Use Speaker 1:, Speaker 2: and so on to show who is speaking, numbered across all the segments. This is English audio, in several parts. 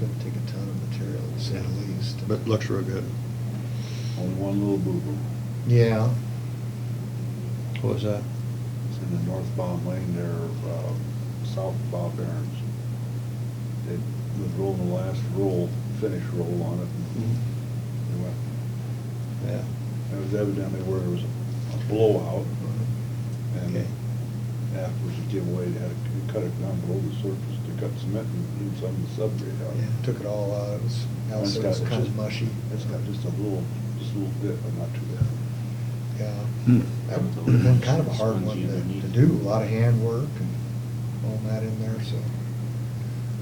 Speaker 1: gonna take a ton of material, to say the least.
Speaker 2: But looks real good.
Speaker 3: Only one little boo-boo.
Speaker 1: Yeah,
Speaker 2: What was that?
Speaker 3: It's in the northbound lane there, uh, south of Bob Aaron's. They was rolling the last roll, finish roll on it.
Speaker 1: Mm-hmm.
Speaker 3: and They went,
Speaker 2: Yeah.
Speaker 3: that was evidently where there was a blowout. And
Speaker 2: Okay.
Speaker 3: afterwards the giveaway, they had to cut it down below the surface to cut cement and do some of the subgrade out.
Speaker 1: yeah, took it all out, it was, now
Speaker 3: It's
Speaker 1: it's
Speaker 3: got- it's
Speaker 1: kind of
Speaker 3: just-
Speaker 1: mushy.
Speaker 3: It's got just a little, just a little bit, but not too bad.
Speaker 1: Yeah,
Speaker 2: Hmm.
Speaker 1: that was been kind of a hard one to, to do, a lot of handwork and all that in there, so.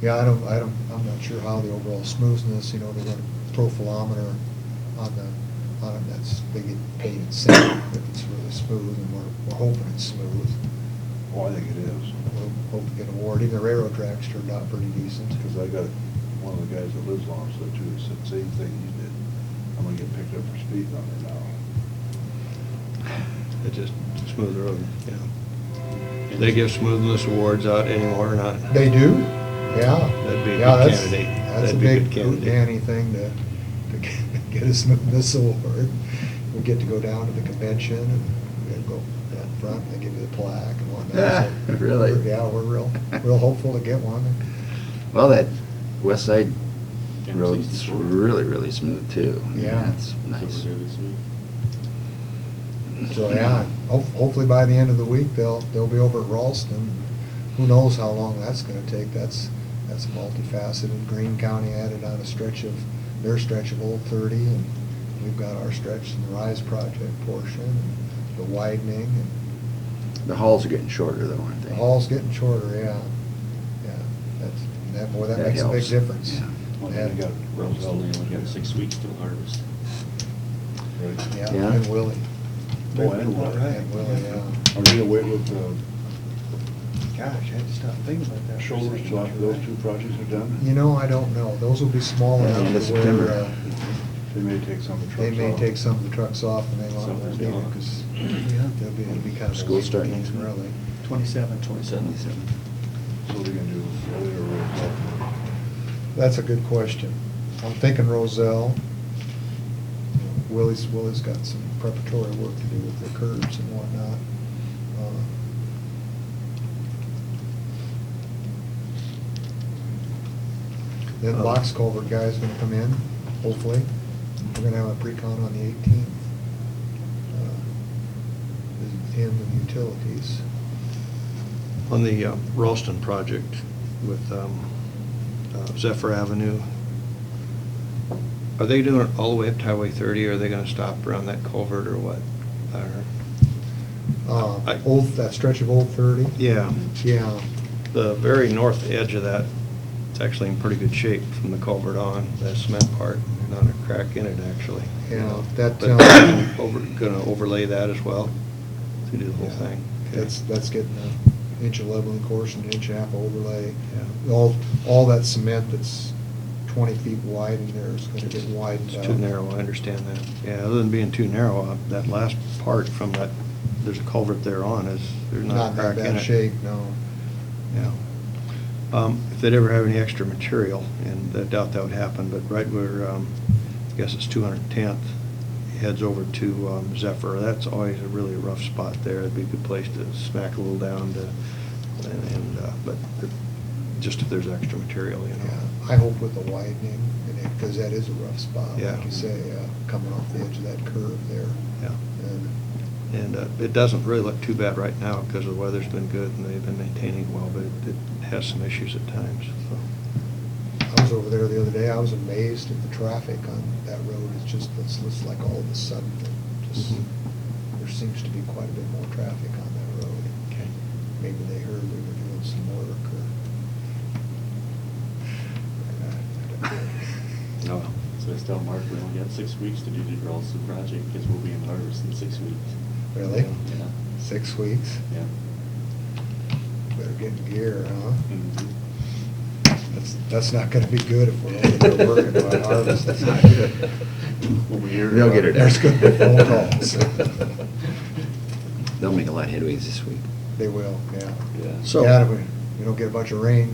Speaker 1: Yeah, I don't, I don't, I'm not sure how the overall smoothness, you know, they run a profilometer on the, on it, that's, they get paid in sand, if it's really smooth, and we're, we're hoping it's smooth.
Speaker 3: Oh, I think it is.
Speaker 1: We'll hope to get an award, even the railroad tracks turned out pretty decent.
Speaker 3: Because I got one of the guys that lives along so too, said same thing you did. I'm gonna get picked up for speeding on it now.
Speaker 2: It just smooth the road, yeah. Do they give smoothness awards out anymore or not?
Speaker 1: They do, yeah.
Speaker 2: That'd be a
Speaker 1: Yeah,
Speaker 2: good
Speaker 1: that's-
Speaker 2: candidate.
Speaker 1: That's a
Speaker 2: That'd be a
Speaker 1: big
Speaker 2: good candidate.
Speaker 1: Danny thing to, to get- get a smoothness award. We get to go down to the convention and we go down front and they give you the plaque and whatnot.
Speaker 4: Ah,
Speaker 1: So,
Speaker 4: really?
Speaker 1: we're- Yeah, we're real, real hopeful to get one.
Speaker 4: Well, that west side
Speaker 5: Yeah,
Speaker 4: road's
Speaker 5: 64.
Speaker 4: really, really smooth too. I mean,
Speaker 1: Yeah.
Speaker 4: That's nice.
Speaker 5: Really smooth.
Speaker 1: So, yeah, Oh. ho- hopefully by the end of the week, they'll, they'll be over at Ralston. Who knows how long that's gonna take? That's, that's multifaceted. Green County added on a stretch of, their stretch of Old Thirty, and we've got our stretch in the Rise Project portion, and the widening, and
Speaker 4: The halls are getting shorter though, aren't they?
Speaker 1: the hall's getting shorter, yeah. Yeah, that's, that, boy, that
Speaker 4: That
Speaker 1: makes a big
Speaker 4: helps.
Speaker 1: difference.
Speaker 4: Yeah.
Speaker 3: Well, then they got
Speaker 5: Road's
Speaker 3: Roselle.
Speaker 5: only, we got six weeks till harvest.
Speaker 3: Right.
Speaker 1: Yeah,
Speaker 4: Yeah.
Speaker 1: and Willie.
Speaker 3: Oh, and Willie.
Speaker 1: And Willie, yeah.
Speaker 3: Are we gonna wait with uh, the
Speaker 6: Gosh, I had to stop thinking about that. for a
Speaker 3: shoulders
Speaker 6: second.
Speaker 3: till after those two projects are done?
Speaker 1: You know, I don't know. Those will be small
Speaker 4: Yeah,
Speaker 1: enough
Speaker 4: end of
Speaker 1: to where,
Speaker 4: September.
Speaker 1: uh,
Speaker 3: They may take some of the trucks
Speaker 1: They
Speaker 3: off.
Speaker 1: may take some of the trucks off and they want
Speaker 5: Some
Speaker 1: to
Speaker 5: of
Speaker 1: leave
Speaker 5: them don't.
Speaker 1: because they'll be, it'll be kind of.
Speaker 4: School start next week.
Speaker 1: Really.
Speaker 6: Twenty-seven, twenty-seven.
Speaker 4: Seventy-seven.
Speaker 3: So what are they gonna do, Early or Roselle?
Speaker 1: That's a good question. I'm thinking Roselle. Willie's, Willie's got some preparatory work to do with the curbs and whatnot. Uh, Then
Speaker 2: Um,
Speaker 1: box culvert guy's gonna come in, hopefully. We're gonna have a pre-con on the eighteenth. Him and utilities.
Speaker 2: On the uh, Ralston project with um, uh, Zephyr Avenue, are they doing it all the way up to Highway 30, or are they gonna stop around that culvert or what? Or-
Speaker 1: Uh,
Speaker 2: I-
Speaker 1: Old, that stretch of Old Thirty.
Speaker 2: Yeah,
Speaker 1: Yeah,
Speaker 2: the very north edge of that, it's actually in pretty good shape from the culvert on, that cement part, not a crack in it, actually. Uh,
Speaker 1: Yeah, that,
Speaker 2: But
Speaker 1: um,
Speaker 2: they're over- Gonna overlay that as well, to do the whole
Speaker 1: Yeah.
Speaker 2: thing? Okay.
Speaker 1: that's, that's getting an inch of leveling course and an inch and a half overlay.
Speaker 2: Yeah.
Speaker 1: All, all that cement that's twenty feet wide in there is gonna get widened out.
Speaker 2: It's too narrow, I understand that. Yeah, other than being too narrow, uh, that last part from that, there's a culvert there on, is, there's not
Speaker 1: Not
Speaker 2: a
Speaker 1: in
Speaker 2: crack
Speaker 1: that
Speaker 2: in it.
Speaker 1: bad shape, no.
Speaker 2: Yeah. Um, If they'd ever have any extra material, and I doubt that would happen, but right where, um, I guess it's 210th, heads over to um, Zephyr, that's always a really rough spot there. It'd be a good place to smack a little down to, and- and, uh, but it- just if there's extra material, you
Speaker 1: Yeah,
Speaker 2: know.
Speaker 1: I hope with the widening, and it, cause that is a rough spot,
Speaker 2: Yeah.
Speaker 1: like you say, uh, coming off the edge of that curve there.
Speaker 2: Yeah.
Speaker 1: And
Speaker 2: And uh, it doesn't really look too bad right now because the weather's been good and they've been maintaining it well, but it- it has some issues at times, so.
Speaker 1: I was over there the other day, I was amazed at the traffic on that road, it's just, it's, it's like all of a sudden, it just,
Speaker 2: Mhm.
Speaker 5: Mm-hmm.
Speaker 1: there seems to be quite a bit more traffic on that road.
Speaker 2: Okay.
Speaker 1: Maybe they heard we were doing some work or.
Speaker 2: No.
Speaker 5: Oh, So I tell Mark, we only got six weeks to do the girls' project, because we'll be in harvest in six weeks.
Speaker 1: Really?
Speaker 5: Yeah,
Speaker 1: Six weeks?
Speaker 5: yeah.
Speaker 1: Better get in gear, huh?
Speaker 5: Mhm. Mm-hmm.
Speaker 1: That's, that's not gonna be good if we're only gonna work it by harvest. It's not good.
Speaker 5: When we hear
Speaker 4: They'll
Speaker 5: about
Speaker 4: get it.
Speaker 1: There's gonna be phone calls.
Speaker 4: They'll make a lot of headways this week.
Speaker 1: They will, yeah.
Speaker 5: Yeah.
Speaker 2: So-
Speaker 1: Yeah, we, we don't get a bunch of rain,